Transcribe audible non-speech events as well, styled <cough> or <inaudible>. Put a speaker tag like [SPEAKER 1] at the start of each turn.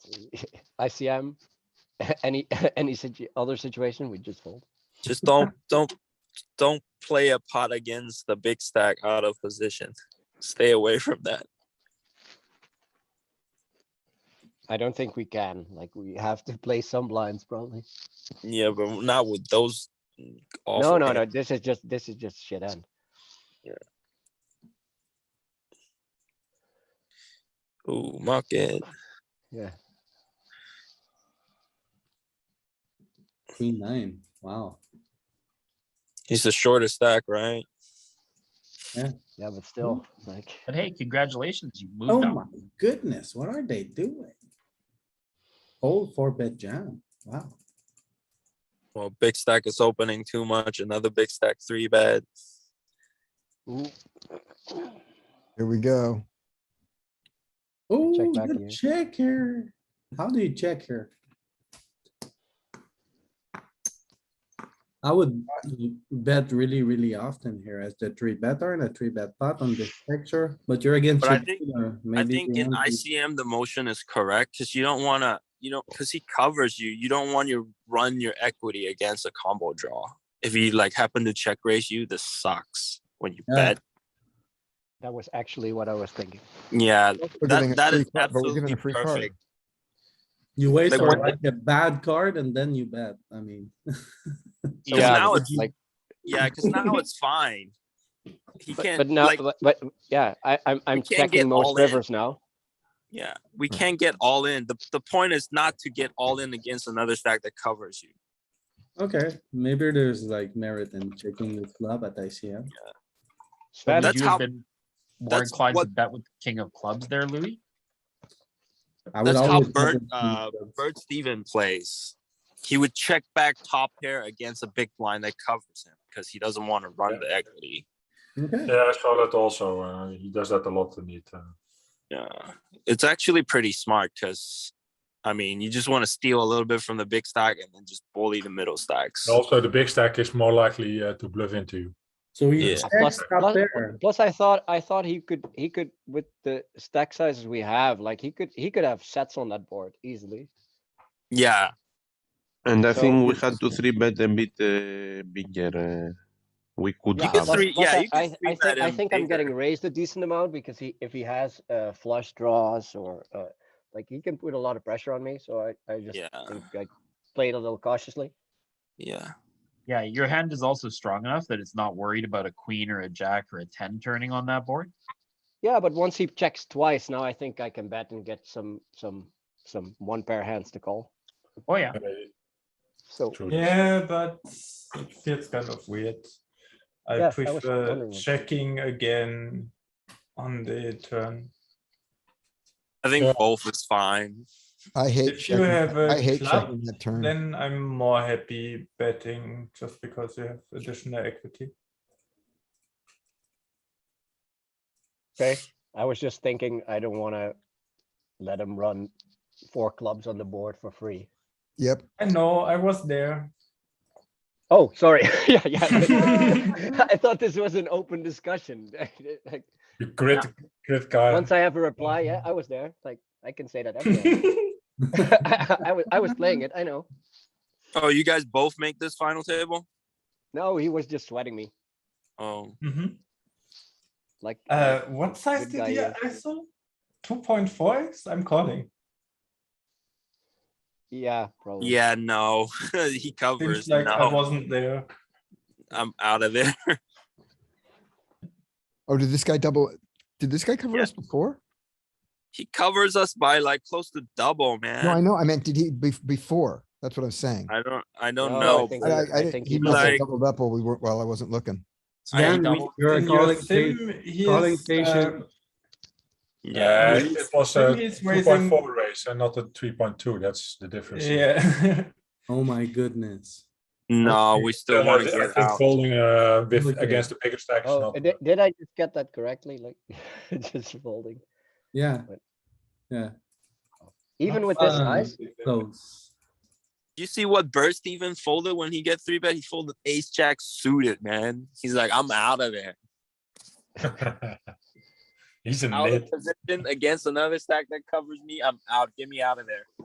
[SPEAKER 1] ICM, um, <laughs> any, <laughs> any situ- other situation, we just fold.
[SPEAKER 2] Just don't, don't, don't play a pot against the big stack out of position. Stay away from that.
[SPEAKER 1] I don't think we can, like, we have to play some blinds probably.
[SPEAKER 2] Yeah, but not with those.
[SPEAKER 1] No,
[SPEAKER 2] awful
[SPEAKER 1] no, no,
[SPEAKER 2] hands.
[SPEAKER 1] this is just, this is just shit end.
[SPEAKER 2] Ooh, market.
[SPEAKER 1] Yeah,
[SPEAKER 3] Queen nine, wow.
[SPEAKER 2] He's the shortest stack, right?
[SPEAKER 1] yeah, but still, like,
[SPEAKER 4] But hey, congratulations, you
[SPEAKER 2] Mm-hmm.
[SPEAKER 3] Oh
[SPEAKER 4] moved
[SPEAKER 3] my
[SPEAKER 4] up.
[SPEAKER 3] goodness, what are they doing? Old four bet jam, wow.
[SPEAKER 2] Well, big stack is opening too much. Another big stack, three bet.
[SPEAKER 1] ooh,
[SPEAKER 5] Here we go.
[SPEAKER 3] Oh,
[SPEAKER 1] check back here.
[SPEAKER 3] good check here. How do you check here? I would bet really, really often here as the three better and a three bet pot on this picture, but you're against.
[SPEAKER 2] But I
[SPEAKER 3] your
[SPEAKER 2] think-
[SPEAKER 3] dealer.
[SPEAKER 2] I
[SPEAKER 3] Maybe
[SPEAKER 2] think
[SPEAKER 3] you
[SPEAKER 2] in
[SPEAKER 3] want to-
[SPEAKER 2] ICM, the motion is correct because you don't want to, you don't, because he covers you. You don't want to run your equity against a combo draw. If he like happen to check raise you, this sucks when you
[SPEAKER 3] Yeah.
[SPEAKER 2] bet.
[SPEAKER 1] that was actually what I was thinking.
[SPEAKER 2] Yeah,
[SPEAKER 5] We're getting
[SPEAKER 2] that,
[SPEAKER 5] a
[SPEAKER 2] that
[SPEAKER 5] free
[SPEAKER 2] is
[SPEAKER 5] card, but we're
[SPEAKER 2] absolutely
[SPEAKER 5] getting a free card.
[SPEAKER 2] perfect.
[SPEAKER 3] You wait
[SPEAKER 2] Like,
[SPEAKER 3] for
[SPEAKER 2] what-
[SPEAKER 3] like a bad card and then you bet, I mean.
[SPEAKER 1] So
[SPEAKER 2] Yeah,
[SPEAKER 1] now
[SPEAKER 2] now
[SPEAKER 1] it's
[SPEAKER 2] it's-
[SPEAKER 1] like,
[SPEAKER 2] Yeah, because now it's fine. He
[SPEAKER 1] but,
[SPEAKER 2] can't,
[SPEAKER 1] but now,
[SPEAKER 2] like,
[SPEAKER 1] but, but, yeah, I, I'm, I'm
[SPEAKER 2] can't get
[SPEAKER 1] checking
[SPEAKER 2] all
[SPEAKER 1] most
[SPEAKER 2] in.
[SPEAKER 1] rivers now.
[SPEAKER 2] yeah, we
[SPEAKER 1] Hmm.
[SPEAKER 2] can't get all in. The, the point is not to get all in against another stack that covers you.
[SPEAKER 3] Okay, maybe there's like merit in checking the flop at ICM.
[SPEAKER 4] Would
[SPEAKER 2] That's
[SPEAKER 4] you
[SPEAKER 2] how-
[SPEAKER 4] have been more
[SPEAKER 2] that's
[SPEAKER 4] inclined to
[SPEAKER 2] what-
[SPEAKER 4] bet with king of clubs there, Louis?
[SPEAKER 3] I would
[SPEAKER 2] That's how
[SPEAKER 3] always bet
[SPEAKER 2] Bert,
[SPEAKER 3] with the
[SPEAKER 2] uh,
[SPEAKER 3] clubs.
[SPEAKER 2] Bert Steven plays. He would check back top pair against a big blind that covers him because he doesn't want to run the equity.
[SPEAKER 3] Okay,
[SPEAKER 6] Yeah, I saw that also. Uh, he does that a lot in it. Uh,
[SPEAKER 2] Yeah, it's actually pretty smart because, I mean, you just want to steal a little bit from the big stack and then just bully the middle stacks.
[SPEAKER 6] and also, the big stack is more likely uh, to bluff into.
[SPEAKER 3] so he
[SPEAKER 2] Yeah.
[SPEAKER 3] checks
[SPEAKER 1] Plus,
[SPEAKER 3] up
[SPEAKER 1] plus-
[SPEAKER 3] there.
[SPEAKER 1] plus I thought, I thought he could, he could, with the stack sizes we have, like, he could, he could have sets on that board easily.
[SPEAKER 2] Yeah,
[SPEAKER 7] And I
[SPEAKER 1] So-
[SPEAKER 7] think we had to three bet a bit uh, bigger. Uh, we could
[SPEAKER 1] Yeah,
[SPEAKER 2] can
[SPEAKER 7] have.
[SPEAKER 1] plus-
[SPEAKER 2] three-
[SPEAKER 1] plus
[SPEAKER 2] yeah,
[SPEAKER 1] I-
[SPEAKER 2] you can
[SPEAKER 1] I-
[SPEAKER 2] three
[SPEAKER 1] I
[SPEAKER 2] bet
[SPEAKER 1] think, I
[SPEAKER 2] him
[SPEAKER 1] think I'm
[SPEAKER 2] bigger.
[SPEAKER 1] getting raised a decent amount because he, if he has uh, flush draws or uh, like he can put a lot of pressure on me, so I, I just
[SPEAKER 2] Yeah.
[SPEAKER 1] think I played a little cautiously.
[SPEAKER 2] yeah.
[SPEAKER 4] Yeah, your hand is also strong enough that it's not worried about a queen or a jack or a ten turning on that board.
[SPEAKER 1] Yeah, but once he checks twice, now I think I can bet and get some, some, some one pair hands to call.
[SPEAKER 4] Oh, yeah.
[SPEAKER 6] Eh,
[SPEAKER 1] So
[SPEAKER 6] True.
[SPEAKER 8] Yeah, but it feels kind of weird. I
[SPEAKER 1] Yes, I was
[SPEAKER 8] prefer
[SPEAKER 1] wondering.
[SPEAKER 8] checking again on the turn.
[SPEAKER 2] I think
[SPEAKER 6] Yeah.
[SPEAKER 2] both is fine.
[SPEAKER 5] I hate
[SPEAKER 8] If you
[SPEAKER 5] checking,
[SPEAKER 8] have a
[SPEAKER 5] I hate
[SPEAKER 8] club,
[SPEAKER 5] checking that
[SPEAKER 3] Hmm.
[SPEAKER 5] turn.
[SPEAKER 8] Then I'm more happy betting just because you have additional equity.
[SPEAKER 1] okay, I was just thinking I don't want to let him run four clubs on the board for free.
[SPEAKER 5] Yep,
[SPEAKER 8] I know, I was there.
[SPEAKER 1] Oh, sorry. <laughs> yeah, yeah. I thought this was an open discussion. <laughs> like,
[SPEAKER 6] You grit, grit guy.
[SPEAKER 1] Once I have a reply, yeah, I was there. Like I can say that. everywhere. <laughs>
[SPEAKER 8] <laughs>
[SPEAKER 1] I, was I was playing it. I know.
[SPEAKER 2] Oh, you guys both make this final table?
[SPEAKER 1] No, he was just sweating me.
[SPEAKER 2] Oh,
[SPEAKER 8] Mhm.
[SPEAKER 1] Like
[SPEAKER 8] Uh, what size
[SPEAKER 1] Good
[SPEAKER 8] did
[SPEAKER 1] guy,
[SPEAKER 8] the
[SPEAKER 1] yeah.
[SPEAKER 8] ISO? Two point four X? I'm calling.
[SPEAKER 1] yeah, probably.
[SPEAKER 2] yeah, no. <laughs> he
[SPEAKER 8] Seems
[SPEAKER 2] covers.
[SPEAKER 8] like I
[SPEAKER 2] no,
[SPEAKER 8] wasn't there.
[SPEAKER 2] I'm out of there. <laughs>
[SPEAKER 5] oh, did this guy double, did this guy cover
[SPEAKER 2] Yeah.
[SPEAKER 5] us before?
[SPEAKER 2] he covers us by like close to double, man.
[SPEAKER 5] No, I know, I meant, did he, bef- before, that's what I'm saying.
[SPEAKER 2] I don't. I don't
[SPEAKER 1] No, I
[SPEAKER 2] know.
[SPEAKER 1] think-
[SPEAKER 5] I, I, I
[SPEAKER 1] think
[SPEAKER 5] didn't-
[SPEAKER 1] he
[SPEAKER 5] he must have
[SPEAKER 2] like-
[SPEAKER 5] doubled up while we were, while I wasn't looking.
[SPEAKER 2] I
[SPEAKER 3] Then
[SPEAKER 2] don't-
[SPEAKER 3] we- you're
[SPEAKER 8] In your
[SPEAKER 3] calling
[SPEAKER 8] sim,
[SPEAKER 3] sim-
[SPEAKER 8] he
[SPEAKER 3] calling
[SPEAKER 8] is,
[SPEAKER 3] station.
[SPEAKER 8] uh,
[SPEAKER 6] yeah,
[SPEAKER 2] yeah.
[SPEAKER 6] Eh, it
[SPEAKER 8] he's-
[SPEAKER 6] was
[SPEAKER 8] then
[SPEAKER 6] a
[SPEAKER 8] he's
[SPEAKER 6] 2.4 race and not a 3.2. That's the difference.
[SPEAKER 8] Yeah.
[SPEAKER 3] Oh my goodness.
[SPEAKER 2] No, we still
[SPEAKER 6] Uh,
[SPEAKER 2] want
[SPEAKER 6] I
[SPEAKER 2] to
[SPEAKER 6] think
[SPEAKER 2] get out.
[SPEAKER 6] folding uh, with
[SPEAKER 3] Okay.
[SPEAKER 6] against the bigger stack is
[SPEAKER 1] Oh,
[SPEAKER 6] not. <laughs>
[SPEAKER 1] did, did I just get that correctly? Like <laughs> just folding.
[SPEAKER 3] Yeah,
[SPEAKER 1] Even with this
[SPEAKER 3] fun.
[SPEAKER 1] size,
[SPEAKER 3] close.
[SPEAKER 2] You see what Bert Steven folded when he get three bet? He folded ace jack suited, man. He's like, I'm out of there.
[SPEAKER 6] He's a
[SPEAKER 2] Out
[SPEAKER 6] nit.
[SPEAKER 2] of position against another stack that covers me. I'm out. Get me out of there.